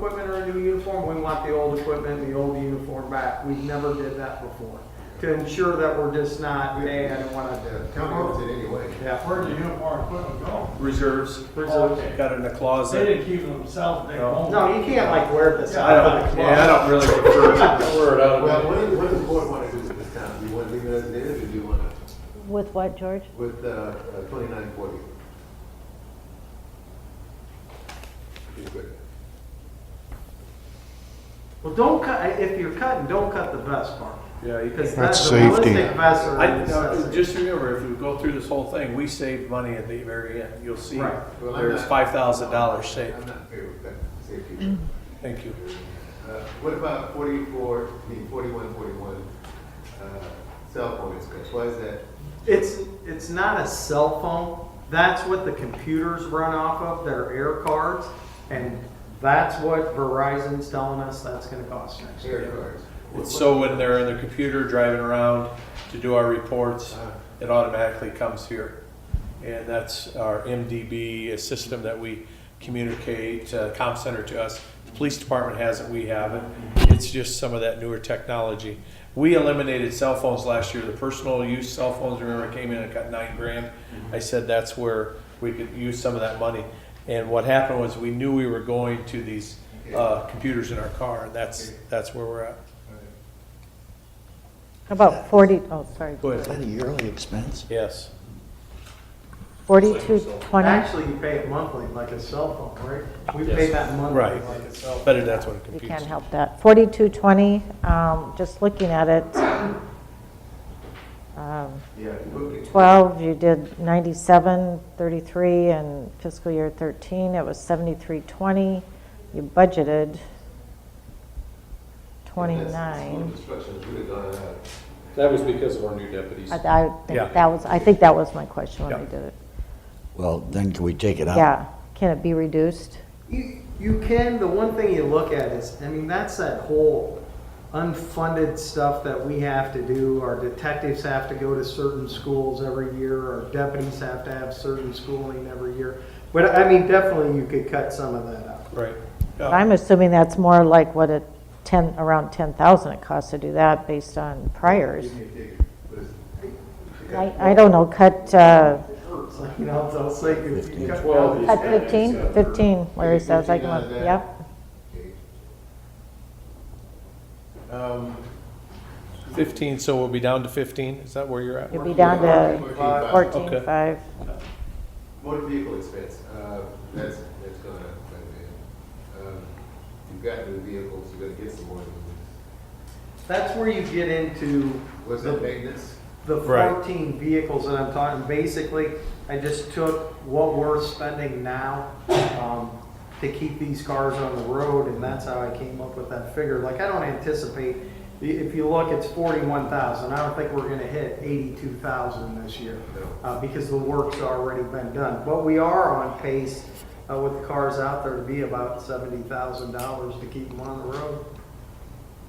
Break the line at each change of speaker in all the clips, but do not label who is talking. new uniform, we want the old equipment and the old uniform back. We've never did that before, to ensure that we're just not, hey, I don't wanna do it.
Town owns it anyway.
Yeah.
Where'd the uniform equipment go?
Reserves. Oh,
Reserves.
Got it in the
They
closet.
didn't keep it themselves, they
No.
owned it.
No, you can't like wear this.
I don't, yeah, I don't really prefer that word out of
Well, what does, what does the board want to do with this town? Do you want to leave it as it is, or do you want to,
With what, George?
with, uh, twenty-nine forty?
Well, don't cut, if you're cutting, don't cut the vest part.
Yeah, you
Because
can.
that's
That's
the
safety.
ballistic vests are.
I,
a
uh,
necessity.
just remember, if we go through this whole thing, we saved money at the very end. You'll see
Right.
Well, I'm
there's
not-
five thousand dollars saved.
I'm not fair with that, safety.
Thank you.
Uh, What about forty-four, I mean, forty-one, forty-one, uh, cell phone expense, why is that?
It's, it's not a cell phone. That's what the computers run off of, their air cards. And that's what Verizon's telling us that's gonna cost next year.
Air cards.
It's so when they're in the computer driving around to do our reports,
Uh,
it automatically comes here. And that's our MDB, a system that we communicate, uh, comp center to us. The police department has it, we have it. It's just some of that newer technology. We eliminated cell phones last year, the personal use cell phones, remember, came in and got nine grand. I said that's where we could use some of that money. And what happened was, we knew we were going to these, uh, computers in our car, and that's, that's where we're at.
How About 40, oh, sorry,
Go ahead.
that a yearly expense?
Yes.
4220,
Actually, you pay it monthly like a cell phone, right? We pay
Yes.
that monthly
Right.
like a cell phone.
Better that's what a
we
computer.
can't help that. 4220, um, just looking at it, um,
Yeah.
12, you did 97, 33, and fiscal year 13, it was 7320. You budgeted
That's-
29.
that's what Instructions would have gone out.
That was because of our new deputies.
I- I
Yeah.
think that was, I think that was my question when
Yeah.
I did it.
Well, then can we take it out?
Yeah, can it be reduced?
You, you can, the one thing you look at is, I mean, that's that whole unfunded stuff that we have to do. Our detectives have to go to certain schools every year, our deputies have to have certain schooling every year. But I mean, definitely you could cut some of that out.
Right.
But I'm assuming that's more like what a 10, around 10,000 it costs to do that based on priors.
You can take it, but it's-
I, I don't know, cut, uh,
It's like, You know, they'll say you- you cut
Twelve
down-
is-
cut 15, 15, Larry says, I can, yep.
okay.
Um, Fifteen, so we'll be down to fifteen, is that where you're at?
You'd be down to
14,500.
14.5.
Motor vehicle expense, uh, that's, that's gone up quite a bit. Um, You've got new vehicles, you're gonna get some more. new ones.
That's where you get into
Was that maintenance?
the
Right.
14 vehicles that I'm talking, basically, I just took what we're spending now um, to keep these cars on the road, and that's how I came up with that figure. Like, I don't anticipate, i- if you look, it's 41,000. I don't think we're going to hit 82,000 this year
No.
uh, because the work's already been done. But we are on pace uh, with the cars out there to be about $70,000 to keep them on the road.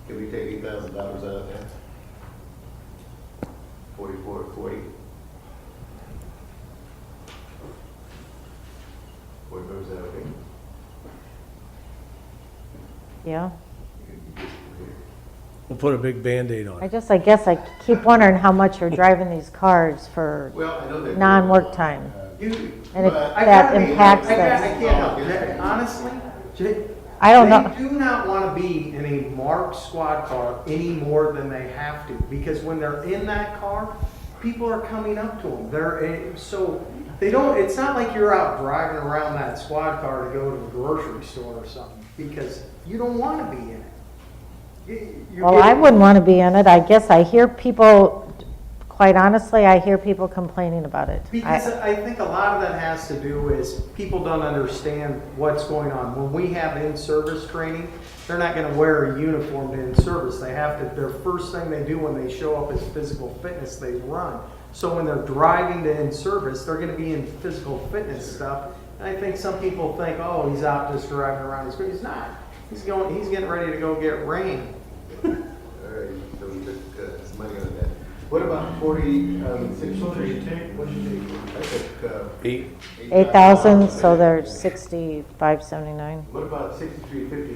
Can we take eight thousand dollars out of that? Forty-four, forty? Board members, is that okay?
Yeah,
We'll put a big Band-Aid on
I just, I guess I keep wondering how much you're driving these cars for,
Well, I know that. Uh,
Non-work time.
You-
and if
But-
I
that
gotta be-
impacts
I gotta- I
them.
can't help it. Honestly, Jay,
I don't know.
They do not want to be in a marked squad car any more than they have to, because when they're in that car, people are coming up to them. They're, eh, so, they don't, it's not like you're out driving around that squad car to go to the grocery store or something, because you don't want to be in it. You- you're
Well, I
getting-
wouldn't want to be in it. I guess I hear people, quite honestly, I hear people complaining about it. I-
Because I think a lot of that has to do is people don't understand what's going on. When we have in-service training, they're not gonna wear a uniform to in-service. They have to, their first thing they do when they show up is physical fitness, they run. So when they're driving to in-service, they're gonna be in physical fitness stuff. And I think some people think, oh, he's out just driving around, he's, he's not. He's going, he's getting ready to go get rain.
All right, so we took uh, some money on that. What about forty, um, six?
So did you take-
What did you take? I took, uh,
Eight.
Eight thousand, so they're sixty-five seventy-nine.
What about sixty-three fifty